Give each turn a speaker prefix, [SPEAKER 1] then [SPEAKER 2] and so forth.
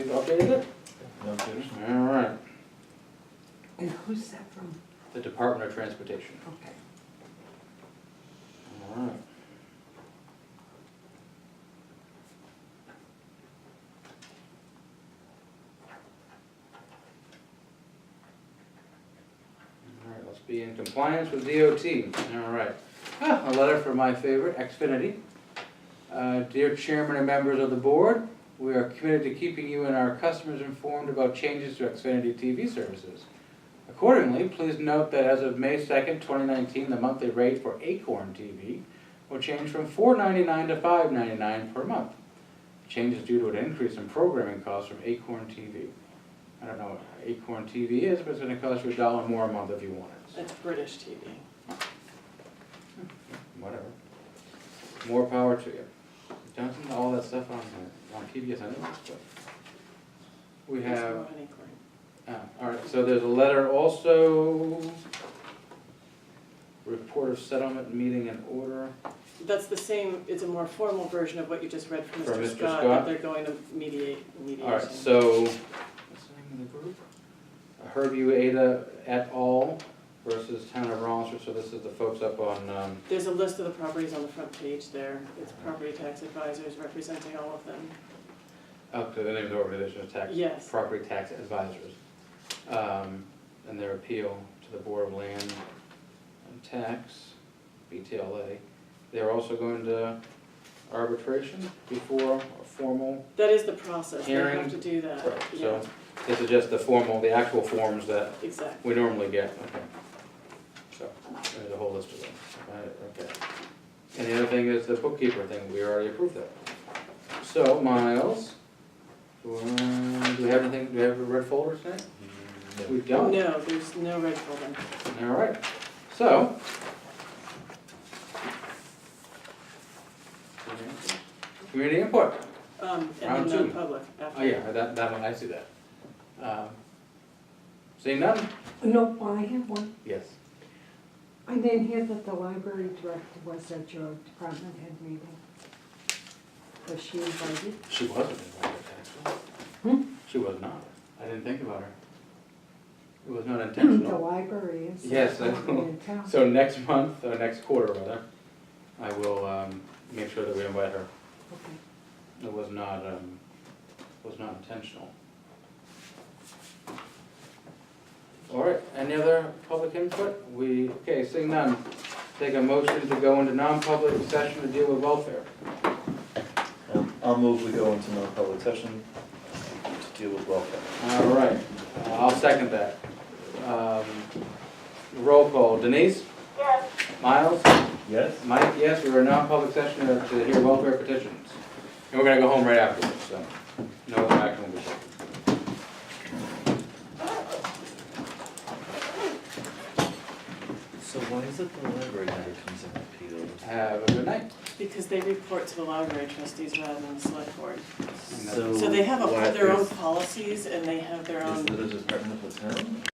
[SPEAKER 1] updated it?
[SPEAKER 2] No kidding.
[SPEAKER 1] All right.
[SPEAKER 3] And who's that from?
[SPEAKER 1] The Department of Transportation.
[SPEAKER 3] Okay.
[SPEAKER 1] All right. All right, let's be in compliance with DOT. All right. Ah, A letter from my favorite, Xfinity. Uh, Dear Chairman and members of the board, we are committed to keeping you and our customers informed about changes to Xfinity TV services. Accordingly, please note that as of May second, twenty nineteen, the monthly rate for Acorn TV will change from $4.99 to $5.99 per month. The Change is due to an increase in programming costs from Acorn TV. I don't know what Acorn TV is, but it's gonna cost you a dollar more a month if you want it.
[SPEAKER 4] It's British TV.
[SPEAKER 1] whatever. More power to you. Johnson, all that stuff on, the- on PBS anyways, but. We
[SPEAKER 4] There's
[SPEAKER 1] have,
[SPEAKER 4] no any coin.
[SPEAKER 1] uh, all right, so there's a letter also. Report of settlement meeting in order.
[SPEAKER 4] That's the same, it's a more formal version of what you just read from
[SPEAKER 1] From
[SPEAKER 4] Mr.
[SPEAKER 1] Mr.
[SPEAKER 4] Scott,
[SPEAKER 1] Scott.
[SPEAKER 4] that they're going to mediate, mediation.
[SPEAKER 1] All right, so, what's the name of the group? Herbie Ueda et al. versus Town of Rollinsford, so this is the folks up on, um,
[SPEAKER 4] There's a list of the properties on the front page there. It's property tax advisors representing all of them.
[SPEAKER 1] up to the name of the organization, is Tax
[SPEAKER 4] Yes.
[SPEAKER 1] property tax advisors, um, and their appeal to the Board of Land and Tax, BTLA. They're also going to arbitration before a formal,
[SPEAKER 4] That is the process. They
[SPEAKER 1] Hearing.
[SPEAKER 4] have to do that.
[SPEAKER 1] so
[SPEAKER 4] Uh, Yeah,
[SPEAKER 1] this is just the formal, the actual forms that
[SPEAKER 4] exactly.
[SPEAKER 1] we normally get, okay. So, there's a whole list of them, Right, okay. And the other thing is the bookkeeper thing, we already approved that. So, Miles, do uh, do we have anything, do we have a red folder tonight? We don't,
[SPEAKER 4] No, there's no red folder.
[SPEAKER 1] all right, so. Community input,
[SPEAKER 4] Um,
[SPEAKER 1] Round
[SPEAKER 4] and
[SPEAKER 1] two.
[SPEAKER 4] then non-public after.
[SPEAKER 1] oh yeah, that, that one, I see that. Um, Seeing none?
[SPEAKER 3] No, well, I have one.
[SPEAKER 1] Yes.
[SPEAKER 3] I didn't hear that the library director was at your department head meeting. Was she invited?
[SPEAKER 1] She wasn't invited, actually.
[SPEAKER 3] Hmm?
[SPEAKER 1] She was not. I didn't think about her. It was not
[SPEAKER 3] The
[SPEAKER 1] intentional.
[SPEAKER 3] library is.
[SPEAKER 1] Yes, I know.
[SPEAKER 3] In town.
[SPEAKER 1] So next month, or next quarter rather, I will um, make sure that we invite her.
[SPEAKER 3] Okay.
[SPEAKER 1] It was not, um, was not intentional. All right, any other public input? We, okay, seeing none, take a motion to go into non-public session to deal with welfare.
[SPEAKER 2] Um, I'll move we go into non-public session to deal with welfare.
[SPEAKER 1] All right, uh, I'll second that. Um, Roll call, Denise? Yes. Miles?
[SPEAKER 2] Yes?
[SPEAKER 1] Mike, yes, we were in non-public session to to hear welfare petitions. And we're gonna go home right afterwards, so no action will be taken.
[SPEAKER 2] So why is it the library never comes and appeals?
[SPEAKER 1] Have a good night.
[SPEAKER 4] Because they report to the library trustees rather than the select board.
[SPEAKER 2] So.
[SPEAKER 4] So they have a-
[SPEAKER 2] why
[SPEAKER 4] their own
[SPEAKER 2] is-
[SPEAKER 4] policies and they have their
[SPEAKER 2] Is
[SPEAKER 4] own
[SPEAKER 2] it a department of the town?